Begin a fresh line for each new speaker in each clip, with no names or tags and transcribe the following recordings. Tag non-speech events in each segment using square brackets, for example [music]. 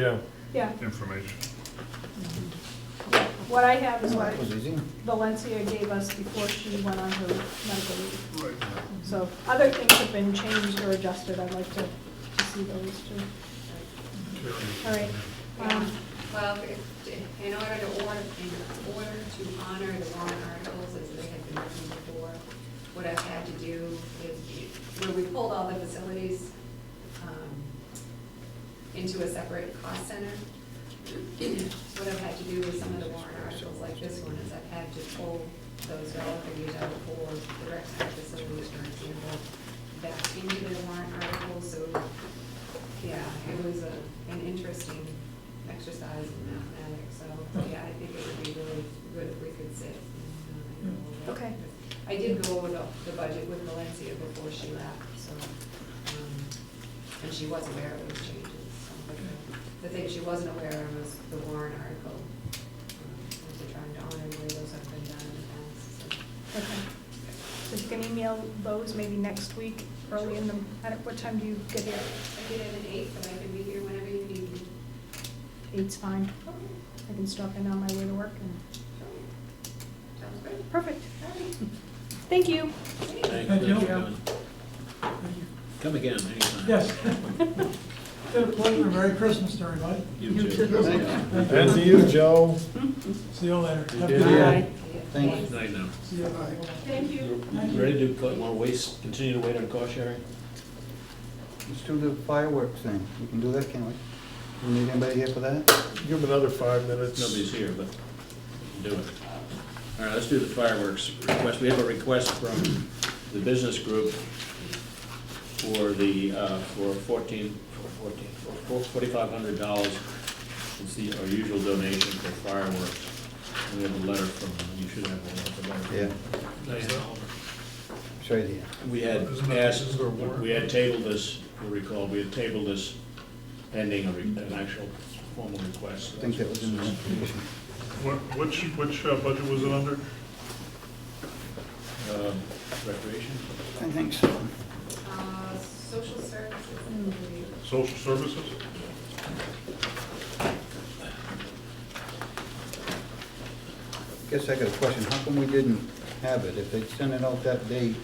Yeah,
Yeah,
information.
what I have is what
That was easy.
Valencia gave us before she went on her medical leave.
Right.
So other things have been changed or adjusted, I'd like to, to see those too. All right, um,
Well, if- in order to order, in order to honor the warrant articles as they had been written before, what I've had to do is, when we pulled all the facilities um, into a separate cost center, what I've had to do with some of the warrant articles like this one is I've had to pull those dollar figures out for the rec center facilities, for example, back into the warrant articles, so yeah, it was a, an interesting exercise in mathematics, so, yeah, I think it would be really good if we could sit. and, uh, go over it.
Okay.
I did go over the, the budget with Valencia before she left, so, um, and she was aware of those changes, so, but the- the thing she wasn't aware of was the Warren article, um, as they're trying to honor where those have been done in the past, so.
okay. So if you can email those maybe next week, early in the, at what time do you get here?
I did have an eight, but I can be here whenever you need me.
Eight's fine,
Okay.
I can stop in on my way to work and,
Sounds good.
perfect,
All right.
thank you.
Thank you.
Come again, anytime.
Yes. [laughs] Been a pleasure. Merry Christmas to everybody.
You too.
Thank
and to you, Joe.
See you later. Have a good
Yeah.
day.
Thank
Thanks.
you. Night now.
See you.
Thank you.
Thank you.
Ready to collect more waste, continue to wait on cost sharing?
Let's do the fireworks thing. We can do that, can't we? You Need anybody here for that?
Give him another five minutes.
Nobody's here, but do it. All right, let's do the fireworks request. We have a request from the business group for the, uh, for fourteen, for fourteen, for forty-five hundred dollars. It's the, our usual donation for fireworks. And We have a letter from, you should have one, a letter.
Yeah, show you here.
We had asked, we had tabled this, you'll recall, we had tabled this pending a re- an actual formal request.
I think that was in the application.
What, which, which uh, budget was it under?
Um, Recreation?
I think so.
Uh, Social services, I believe.
Social services?
Guess I got a question. How come we didn't have it? If they sent it out that day,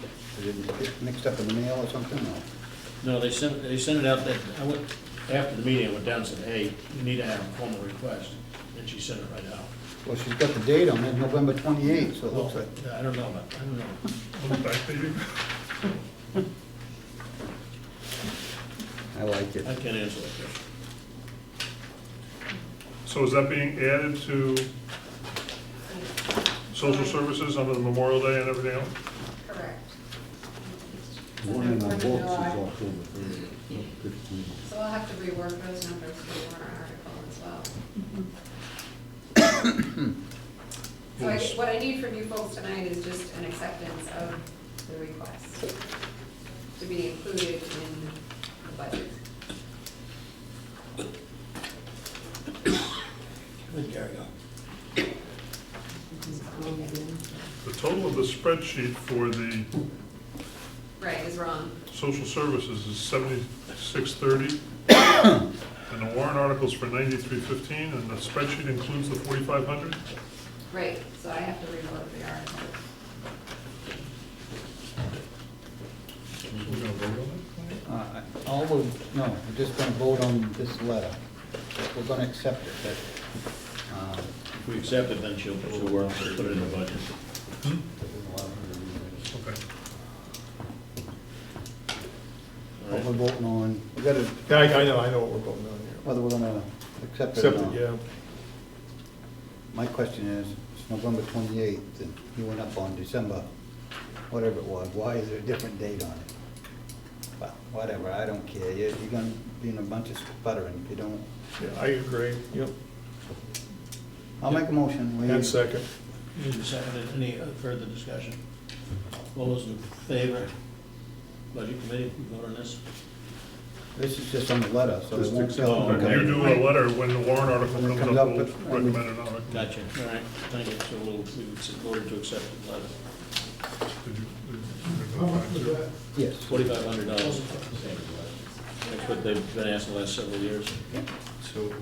did it get mixed up in the mail or something? No.
No, they sent, they sent it out that, I went, after the meeting, I went down and said, hey, you need to have a formal request, and she sent it right out.
Well, she's got the date on it, November 28th, so it looks like,
Yeah, I don't know, about I don't know.
On the back page?
I like it.
I can't answer that question.
So is that being added to social services under the Memorial Day and everything else?
Correct.
One of my
Fourth of
books is
July.
October
So I'll have to rework those numbers for the warrant article as well. So I, what I need from you folks tonight is just an acceptance of the request to be included in the budget.
The total of the spreadsheet for the
Right, is wrong.
social services is seventy-six thirty, and the warrant article's for ninety-three fifteen, and the spreadsheet includes the forty-five hundred?
Right, so I have to reload the article.
So we're gonna vote on
Uh, All of, no, we're just gonna vote on this letter. We're gonna accept it, but, uh,
If we accept it, then she'll, she'll work, she'll put it in the budget.
it? Okay.
what we're voting on, we gotta,
Yeah, I I know, I know what we're voting on here.
whether we're gonna accept it or
Except,
not.
that, yeah,
My question is, it's November twenty-eighth, and you went up on December, whatever it was, why is there a different date on it? Well, Whatever, I don't care, you're, you're gonna be in a bunch of sputtering if you don't.
yeah, I agree. Yep.
I'll make a motion, we.
And second.
Need a second, any further discussion? All those in favor? Budget committee, we vote on this?
This is just on the letter, so it
Just
won't
accept
tell.
it.
them.
You do a letter when the warrant article
When it
comes
comes
up,
up
we'll
with-
recommend it, not recommend.
Gotcha, all right, thank you, so we'll, we've voted to accept the letter.
Did you- did you-
How much was that?
Yes.
Forty-five hundred dollars. That's what they've been asking the last several years.
So